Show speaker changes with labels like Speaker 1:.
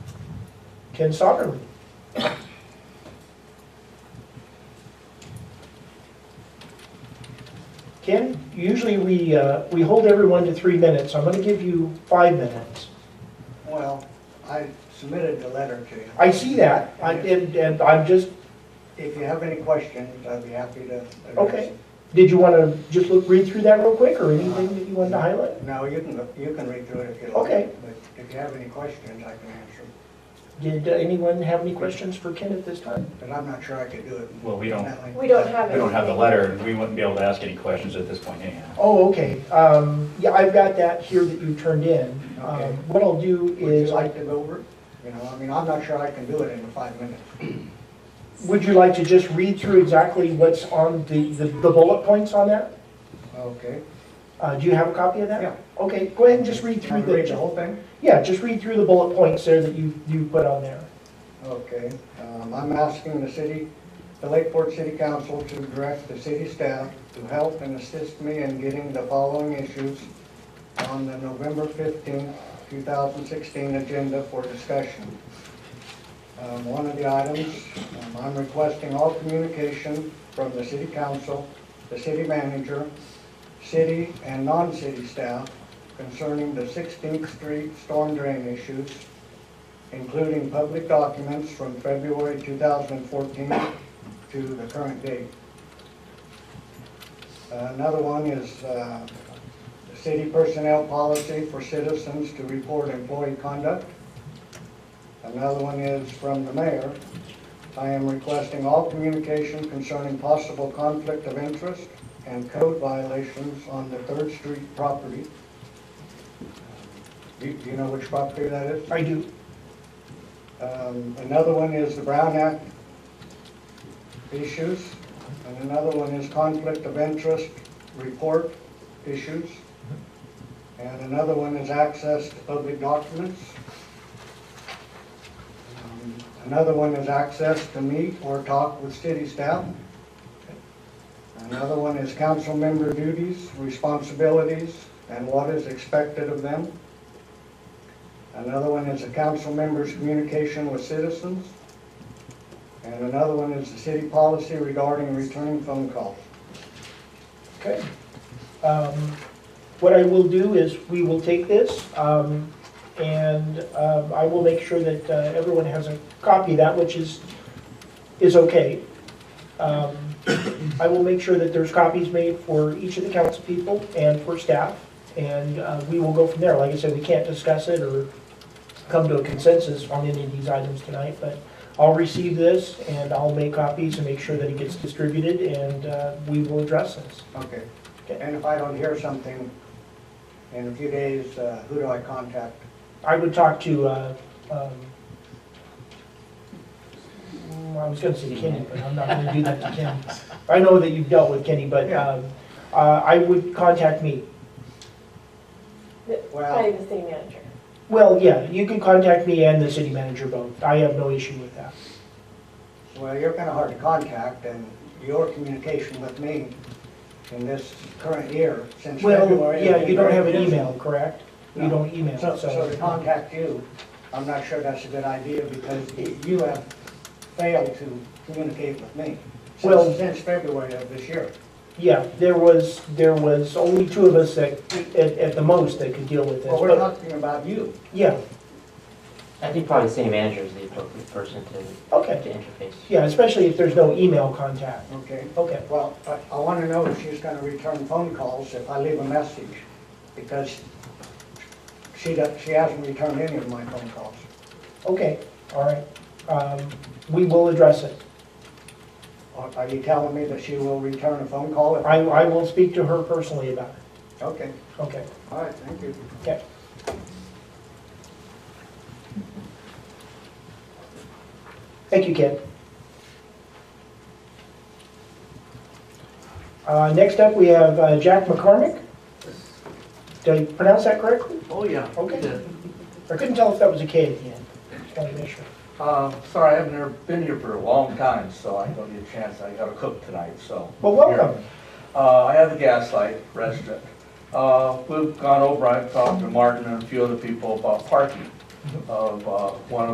Speaker 1: Ken Soderling. Ken, usually we, uh, we hold everyone to three minutes. I'm going to give you five minutes.
Speaker 2: Well, I submitted the letter to you.
Speaker 1: I see that, I- and, and I'm just,
Speaker 2: If you have any questions, I'd be happy to address.
Speaker 1: Okay.
Speaker 2: them.
Speaker 1: did you want to just look, read through that real quick, or anything that you wanted to highlight?
Speaker 2: No, you can, look- you can read through it if you like.
Speaker 1: Okay.
Speaker 2: But if you have any questions, I can answer, them.
Speaker 1: Did uh, anyone have any questions for Ken at this time?
Speaker 2: but I'm not sure I could do it.
Speaker 3: Well, we don't-
Speaker 2: Definitely.
Speaker 4: We don't have it.
Speaker 3: We don't have the letter, and we wouldn't be able to ask any questions at this point anyhow.
Speaker 1: Oh, okay, um, yeah, I've got that here that you turned in. Um,
Speaker 2: Okay.
Speaker 1: What I'll do
Speaker 2: Would you
Speaker 1: is,
Speaker 2: like to go over? it? You know, I mean, I'm not sure I can do it in five minutes.
Speaker 1: would you like to just read through exactly what's on the, the the bullet points on that?
Speaker 2: Okay.
Speaker 1: Uh, Do you have a copy of that?
Speaker 2: Yeah.
Speaker 1: Okay, go ahead and just read
Speaker 2: Can I
Speaker 1: through
Speaker 2: read the
Speaker 1: the,
Speaker 2: whole thing?
Speaker 1: yeah, just read through the bullet points there that you, you put on there.
Speaker 2: Okay, um, I'm asking the city, the Lakeport City Council to direct the city staff to help and assist me in getting the following issues on the November fifteenth, two thousand sixteen agenda for discussion. Um, one of the items, um, I'm requesting all communication from the city council, the city manager, city and non-city staff concerning the Sixteenth Street storm drain issues including public documents from February 2014 to the current date. Another one is uh, the city personnel policy for citizens to report employee conduct. Another one is from the mayor. I am requesting all communication concerning possible conflict of interest and code violations on the Third Street property. Do do you know which property that is?
Speaker 1: I do.
Speaker 2: Um, Another one is the Brown Act issues, and another one is conflict of interest report issues, and another one is access to public documents. Um, Another one is access to meet or talk with city staff. Another one is council member duties, responsibilities, and what is expected of them. Another one is the council members' communication with citizens. And another one is the city policy regarding returning phone calls.
Speaker 1: Okay. Um, What I will do is, we will take this, um, and um, I will make sure that uh, everyone has a copy of that, which is, is okay. Um, I will make sure that there's copies made for each of the council people and for staff, and uh, we will go from there. Like I said, we can't discuss it or come to a consensus on any of these items tonight, but I'll receive this, and I'll make copies and make sure that it gets distributed, and uh, we will address this.
Speaker 2: Okay.
Speaker 1: Okay.
Speaker 2: And if I don't hear something in a few days, uh, who do I contact?
Speaker 1: I would talk to, uh, um, mm, I was gonna say Kenny, but I'm not gonna do that to Kenny. I know that you've dealt with Kenny, but,
Speaker 2: Yeah.
Speaker 1: um, uh, I would contact me.
Speaker 4: Not
Speaker 2: Well,
Speaker 4: even the city manager.
Speaker 1: Well, yeah, you can contact me and the city manager both. I have no issue with that.
Speaker 2: well, you're kind of hard to contact, and your communication with me in this current year, since
Speaker 1: Well,
Speaker 2: February.
Speaker 1: yeah,
Speaker 2: has
Speaker 1: you
Speaker 2: been
Speaker 1: don't
Speaker 2: very
Speaker 1: have an
Speaker 2: busy.
Speaker 1: email, correct? You
Speaker 2: No.
Speaker 1: don't email,
Speaker 2: So, so to
Speaker 1: so.
Speaker 2: contact you, I'm not sure that's a good idea because you have failed to communicate with me
Speaker 1: Well-
Speaker 2: since, since February of this year.
Speaker 1: Yeah, there was, there was only two of us that, at, at the most, that could deal with this.
Speaker 2: Well, we're
Speaker 1: but-
Speaker 2: talking about you.
Speaker 1: Yeah,
Speaker 5: I think probably the city manager is the appropriate person to,
Speaker 1: okay.
Speaker 5: to interface.
Speaker 1: Yeah, especially if there's no email contact.
Speaker 2: Okay.
Speaker 1: Okay,
Speaker 2: Well, I, I want to know if she's going to return phone calls if I leave a message because she, do- she hasn't returned any of my phone calls.
Speaker 1: okay, all right. Um, We will address it.
Speaker 2: Are- Are you telling me that she will return a phone call? if-
Speaker 1: I, I will speak to her personally about it.
Speaker 2: Okay,
Speaker 1: Okay,
Speaker 2: all right, thank you.
Speaker 1: okay. Thank you, Ken. Uh, Next up, we have uh, Jack McCormick. Did I pronounce that correctly?
Speaker 6: Oh, yeah.
Speaker 1: Okay.
Speaker 6: Yeah.
Speaker 1: I couldn't tell if that was a K at the end. Just wanted to make sure.
Speaker 6: Uh, sorry, I haven't ever been here for a long time, so I don't get a chance. I gotta cook tonight, so.
Speaker 1: Well, welcome.
Speaker 6: Uh, I have the Gaslight Restaurant. Uh,
Speaker 1: Mm-hmm.
Speaker 6: we've gone over, I've talked to Martin and a few other people about parking of, uh, one of